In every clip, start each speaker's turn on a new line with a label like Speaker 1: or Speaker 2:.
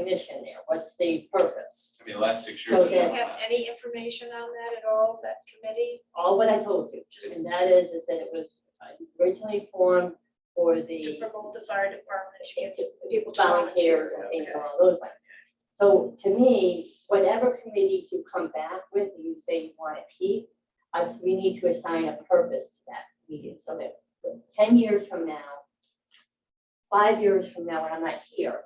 Speaker 1: commission there? What's the purpose?
Speaker 2: I mean, the last six
Speaker 1: So
Speaker 2: years. I've
Speaker 3: Do you
Speaker 2: done
Speaker 1: then-
Speaker 3: have
Speaker 2: that.
Speaker 3: any information on that at all, that committee?
Speaker 1: All what I told you,
Speaker 3: Just-
Speaker 1: and that is, is that it was originally formed for
Speaker 3: To
Speaker 1: the
Speaker 3: promote the fire department, to get people to volunteer.
Speaker 1: volunteers and things
Speaker 3: Okay.
Speaker 1: along those lines. So to me, whatever committee you come back with, and you say you want to keep, us, we need to assign a purpose to that meeting, so that ten years from now, five years from now, when I'm not here,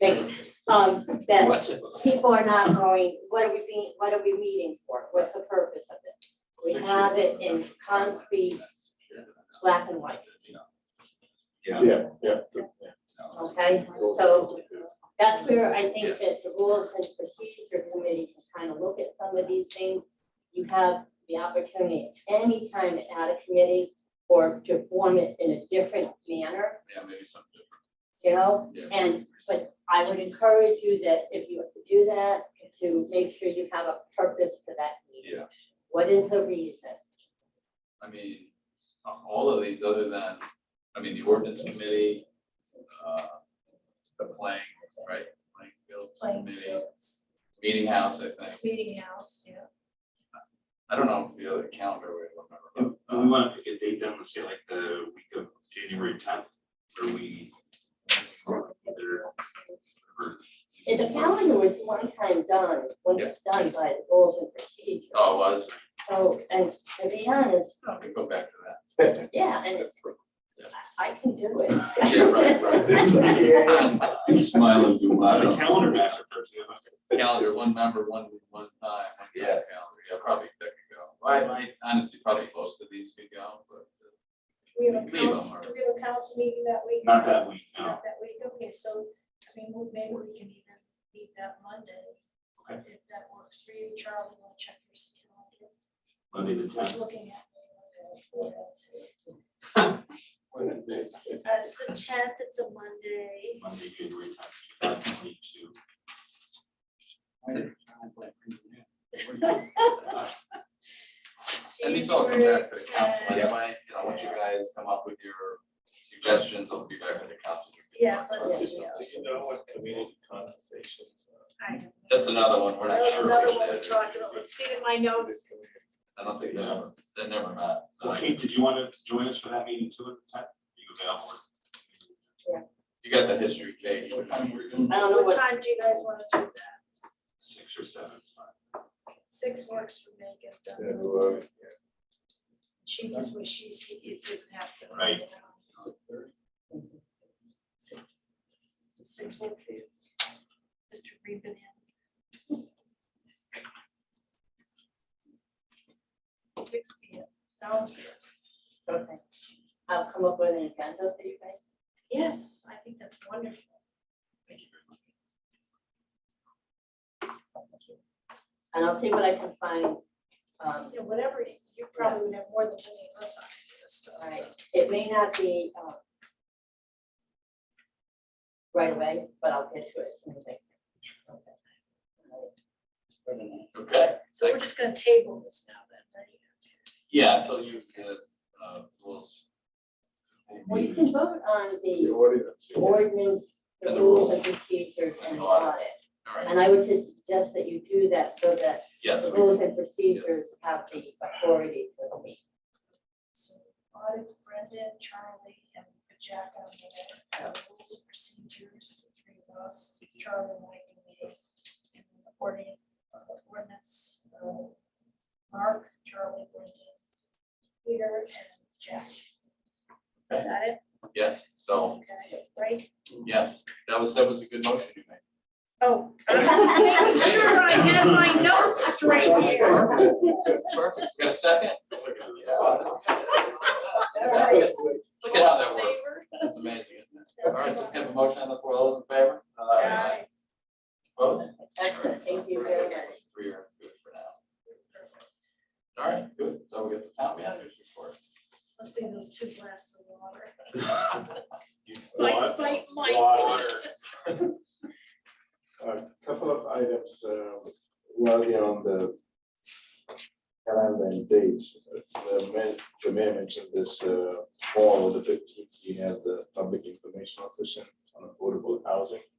Speaker 1: maybe, um, that people are not going, what are we being, what are we meeting for? What's the purpose of this? We
Speaker 2: Six
Speaker 1: have
Speaker 2: years.
Speaker 1: it in concrete, black and white,
Speaker 2: Yeah.
Speaker 4: Yeah, yeah.
Speaker 2: No.
Speaker 1: okay? So that's where I think that the rules and procedure committee can kind of look at some of these things. You have the opportunity anytime to add a committee or to form it in a different manner,
Speaker 2: Yeah, maybe something different.
Speaker 1: you know?
Speaker 2: Yeah.
Speaker 1: And, but I would encourage you that if you do that, to make sure you have a purpose for that meeting.
Speaker 2: Yeah,
Speaker 1: What is the reason?
Speaker 2: I mean, uh, all of these other than, I mean, the ordinance committee, uh, the playing, right, playing fields
Speaker 3: Playing
Speaker 2: committee,
Speaker 3: fields,
Speaker 2: meeting house, I think.
Speaker 3: Meeting house, yeah.
Speaker 2: I don't know if the other calendar would remember. but,
Speaker 5: Do we
Speaker 2: uh,
Speaker 5: wanna pick a date then, let's say like the week of January tenth, or we?
Speaker 1: And the calendar was one time done, when it's done by the rules and procedures.
Speaker 2: Oh, it was,
Speaker 1: So, and to be honest,
Speaker 2: I could go back to that.
Speaker 1: yeah, and it- I I can do it.
Speaker 2: Yeah, right, right. You smile and do
Speaker 5: Uh,
Speaker 2: I
Speaker 5: the
Speaker 2: don't know.
Speaker 5: calendar master person, you know,
Speaker 2: calendar, one member, one, one time, one
Speaker 6: Yeah.
Speaker 2: calendar, yeah, probably that could go. I, I honestly, probably close to these could go, but. uh,
Speaker 3: Do we have a
Speaker 2: Leave 'em
Speaker 3: council,
Speaker 2: or-
Speaker 3: do we have a council meeting that week?
Speaker 5: not that week, no.
Speaker 3: Not that week, okay, so, I mean, well, maybe we can even meet that Monday.
Speaker 5: Okay.
Speaker 3: If that works for you, Charlie, you wanna check your calendar?
Speaker 5: Monday the
Speaker 3: Just
Speaker 5: tenth,
Speaker 3: looking at. That's the tenth, Uh, it's a Monday.
Speaker 5: Monday, January tenth, two thousand twenty-two.
Speaker 2: And these all come back to the council
Speaker 3: January 10th.
Speaker 2: anyway, you know, once you guys come up with your suggestions, it'll be back to the council.
Speaker 3: Yeah, let's,
Speaker 4: you know what community conversations
Speaker 3: I have.
Speaker 2: That's another one, we're not
Speaker 3: That was
Speaker 2: sure. if
Speaker 3: another
Speaker 2: we
Speaker 3: one we
Speaker 2: should.
Speaker 3: talked about, let's see in my notes.
Speaker 2: I don't think they ever, they never met.
Speaker 5: So Kate, did you wanna join us for that meeting too at the tenth? Are you available?
Speaker 2: You got the history, Kate, what time were you?
Speaker 1: I don't know
Speaker 3: What
Speaker 1: what,
Speaker 3: time do you guys wanna do that?
Speaker 5: Six or seven, it's fine.
Speaker 3: Six works for me, get done.
Speaker 4: or.
Speaker 3: She knows what she's, it doesn't have to.
Speaker 5: Right.
Speaker 3: Six. Six one two. Mr. Reben. Six P M, sounds good.
Speaker 1: okay. I'll come up with an agenda for you guys.
Speaker 3: Yes, I think that's wonderful.
Speaker 5: Thank you very much.
Speaker 1: And I'll see what I can find. Um,
Speaker 3: You know, whatever, you probably would have more than any of us on this stuff, so.
Speaker 1: Right. It may not be um, right away, but I'll get to it as soon as I can. Okay. All right.
Speaker 2: Okay,
Speaker 3: So we're just gonna table this now then, right?
Speaker 2: yeah, until you get, uh, rules.
Speaker 1: Well, you can vote on
Speaker 4: The
Speaker 1: the
Speaker 4: ordinance.
Speaker 1: ordinance, the rules and procedures and the audit.
Speaker 2: All right,
Speaker 1: And I would suggest that you do that so that
Speaker 2: yes,
Speaker 1: the
Speaker 2: we
Speaker 1: rules and procedures have the authority to meet.
Speaker 3: So audits Brendan, Charlie, and Jack on there, uh, rules and procedures, the three of us, Charlie and I can be. and the Ordin, uh, ordinance, uh, Mark, Charlie, Brendan, Peter, and Jack. Got it?
Speaker 2: yes, so,
Speaker 3: Okay, right?
Speaker 2: yes, that was, that was a good motion you made.
Speaker 3: Oh, I was just making sure I had my notes straight here.
Speaker 2: Perfect, we got a second? Yeah.
Speaker 1: Alright.
Speaker 2: Look at how that works. That's amazing, isn't it? All right, so we have a motion on the floor, all those in favor?
Speaker 3: Aye.
Speaker 2: Opposed?
Speaker 1: Excellent, thank you very much.
Speaker 2: Three are good for now. All right, good, so we got the town manager's report.
Speaker 3: Must be those two glasses of water.
Speaker 5: You-
Speaker 3: Spike, spike, Mike.
Speaker 5: Water.
Speaker 4: A couple of items, uh, while you're on the calendar and dates, uh, the mayor, the mayor mentioned this, uh, fall of the fifteenth, he had the public information session on affordable housing.